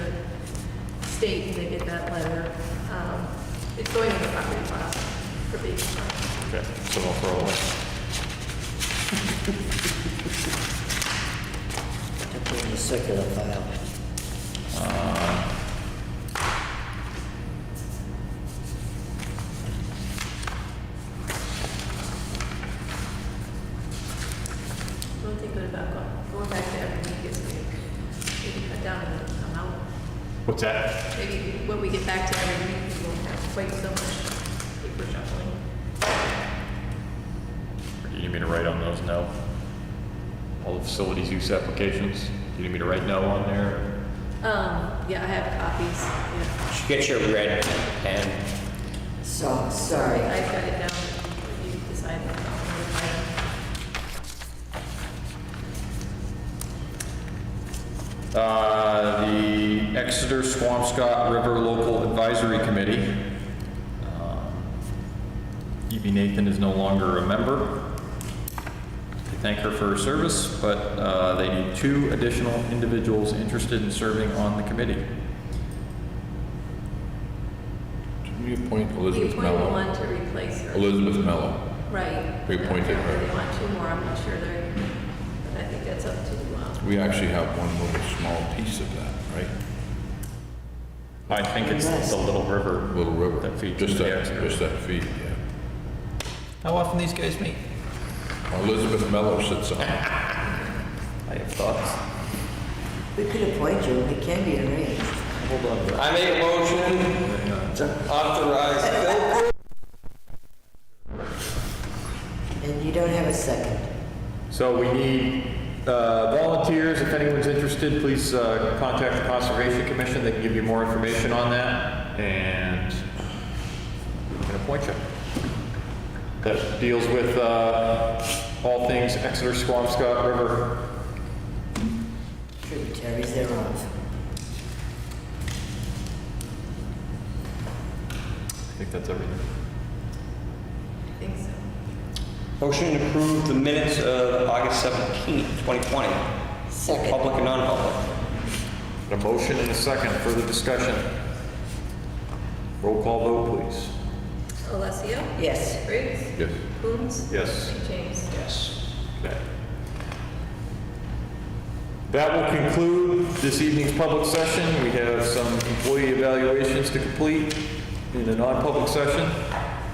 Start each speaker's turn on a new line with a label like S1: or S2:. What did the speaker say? S1: state and they get that letter. Um, It's going in the property file for beach file.
S2: Okay, so I'll throw away.
S3: to put in the circular file.
S1: Don't think good about going, going back there and we get, maybe cut down on the amount.
S2: What's that?
S1: Maybe when we get back to every meeting, we won't have quite so much paper shuffling.
S2: You need me to write on those no? All the facilities use applications? You need me to write no on there?
S1: Um, yeah, I have copies, yeah.
S4: Should get your red pen.
S3: So,
S1: I
S3: sorry.
S1: got it down, you decide on the
S2: Uh, the Exeter Swampscott River Local Advisory Committee. Um, E.B. Nathan is no longer a member. I thank her for her service, but uh, they need two additional individuals interested in serving on the committee.
S5: Didn't we appoint
S1: We
S5: Elizabeth
S1: appoint
S5: Mello?
S1: one to replace her.
S5: Elizabeth Mello.
S1: Right.
S5: We appointed her.
S1: If they want two more, I'm not sure they're, but I think that's up to, um,
S5: We actually have one little small piece of that, right?
S2: I think it's the Little River.
S5: Little river.
S2: That feeds
S5: Just
S2: into the
S5: that,
S2: Exeter.
S5: just that feed, yeah.
S4: How often these guys meet?
S5: Elizabeth Mello sits on it.
S4: I have thoughts.
S3: We could appoint you, it can be arranged.
S4: Hold on. I make a motion to authorize Phil Cor-
S3: And you don't have a second.
S2: So we need uh, volunteers. If anyone's interested, please uh, contact the Conservation Commission. They can give you more information on that, and we can appoint you. That deals with uh, all things Exeter Squamscott River.
S3: Tributaries thereof.
S2: I think that's everything.
S1: I think so.
S4: Motion to approve the minutes of August 17th, 2020.
S3: Second.
S4: Public and non-public.
S2: A motion and a second. Further discussion. Roll call vote, please.
S1: Alessio?
S3: Yes.
S1: Briggs?
S5: Yes.
S1: Coombs?
S2: Yes.
S1: James?
S4: Yes.
S2: Okay. That will conclude this evening's public session. We have some employee evaluations to complete in a non-public session.